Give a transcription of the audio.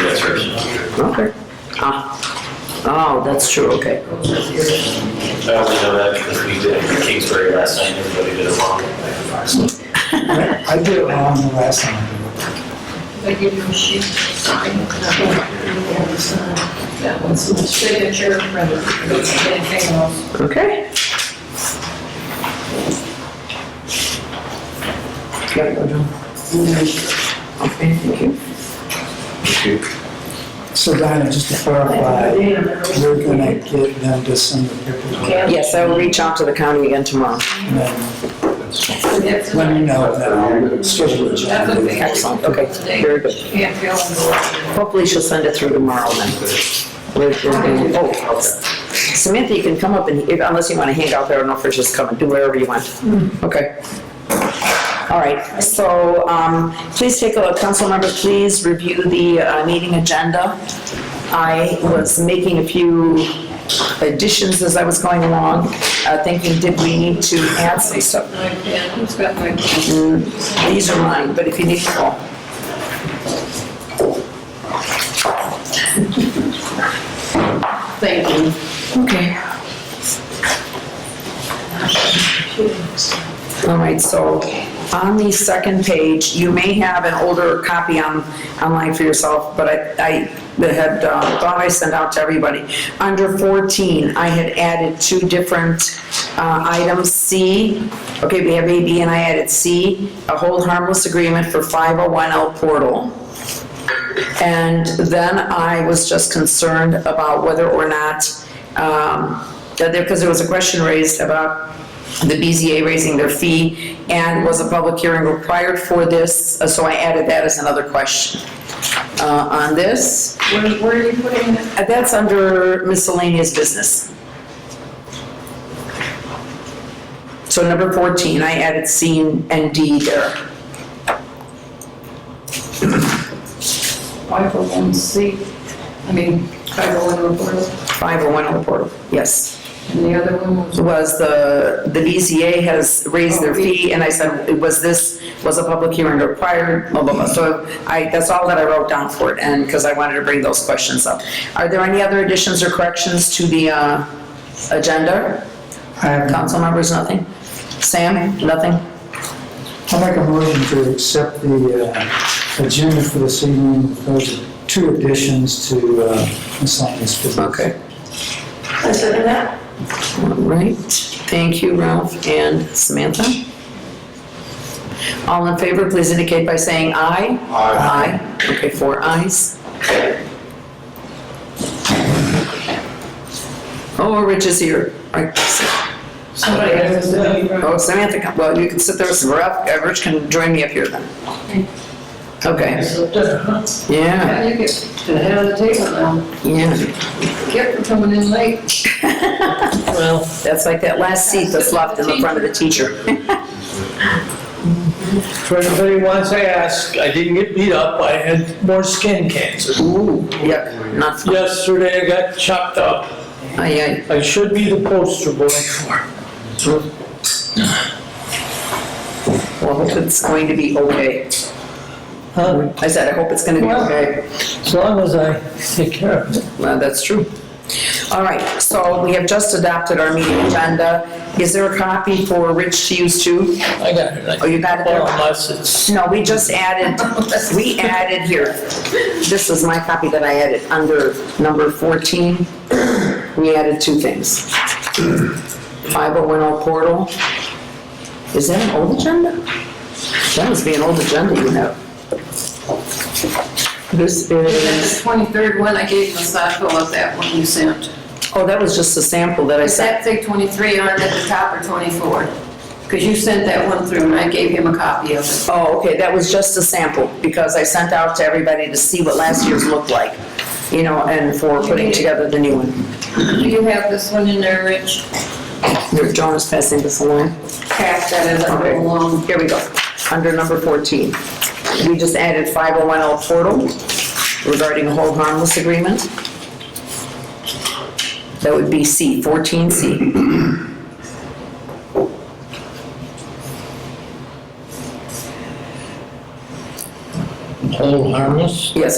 Okay. Ah. Oh, that's true, okay. I only know that because we did it in Kingsbury last night, everybody did it wrong. I did it wrong the last time. I give you a sheet. sign, That one's my signature, and anything else. Okay. Gotta go down. Okay, thank you. So Diana, just to clarify, you're gonna get them to send the paperwork Yes, I will reach out to the county again tomorrow. and then And that's- let me know and then I'll schedule it. That's the thing. Excellent, okay, very good. Can't feel the- Hopefully she'll send it through tomorrow then. With- with- oh. Samantha, you can come up and, if- unless you want to hang out there, I don't know if you're just coming, do wherever you want. Okay. All right, so um, please take a look, council members, please review the uh, meeting agenda. I was making a few additions as I was going along, uh, thinking, did we need to add some stuff? I can't, who's got my? These are mine, but if you need to call. Thank you. Okay. All right, so on the second page, you may have an older copy on, online for yourself, but I, I had, uh, thought I sent out to everybody. Under 14, I had added two different uh, items, C, okay, we have A, B, and I added C, a hold harmless agreement for 501L portal. And then I was just concerned about whether or not, um, that there, because there was a question raised about the BZA raising their fee, and was a public hearing required for this, Uh, so I added that as another question uh, on this. Where, where are you putting it? Uh, That's under miscellaneous business. So number 14, I added C and D there. Five oh one C, I mean, five oh one reporter, 501 on the portal, oh yes. and the other one was. was the, the BZA has raised their fee, and I said, was this, was a public hearing required, blah, blah, blah. So I, that's all that I wrote down for it, and, because I wanted to bring those questions up. Are there any other additions or corrections to the uh, agenda? I have, Council members, nothing? Sam, nothing? I'll make a motion to accept the uh, agenda for this evening. Those are two additions to uh, miscellaneous business. Okay. All right, thank you, Ralph and Samantha. All in favor, please indicate by saying aye. Aye. Aye, okay, four ayes. Oh, Rich is here. Right, so- Somebody has to. Oh, Samantha, come- well, you can sit there, so Ralph, uh, Rich can join me up here then. Okay, yeah, Yeah, you get to the head of the table now. yeah. Get for coming in late. Well, that's like that last seat that's left in the front of the teacher. For anybody who wants to ask, I didn't get beat up, I had more skin cancer. Ooh, yuck, not fun. Yesterday I got chopped up. Aye, aye. I should be the poster boy for it. Well, I hope it's going to be okay. Huh? I said, I hope it's gonna be Well- okay. As long as I take care of it. Well, that's true. All right, so we have just adopted our meeting agenda. Is there a copy for Rich to use too? I got it. Oh, you got it there? Well, Unless it's, No, we just added, we added here, this is my copy that I added, under number 14, we added two things. 5010 portal, is that an old agenda? That must be an old agenda, you know. This And is, the twenty-third one, I gave him a sample of that one you sent. oh, that was just a sample that I Is sent. that say twenty-three on it at the top or twenty-four? Because you sent that one through and I gave him a copy of it. Oh, okay, that was just a sample, because I sent out to everybody to see what last year's looked like, you know, and for putting together the new one. Do you have this one in there, Rich? Here, John is passing this along. Pass that as I Okay, go along. here we go, under number 14. We just added 5010 portal regarding a hold harmless agreement. That would be C, 14C. hold harmless. Yes,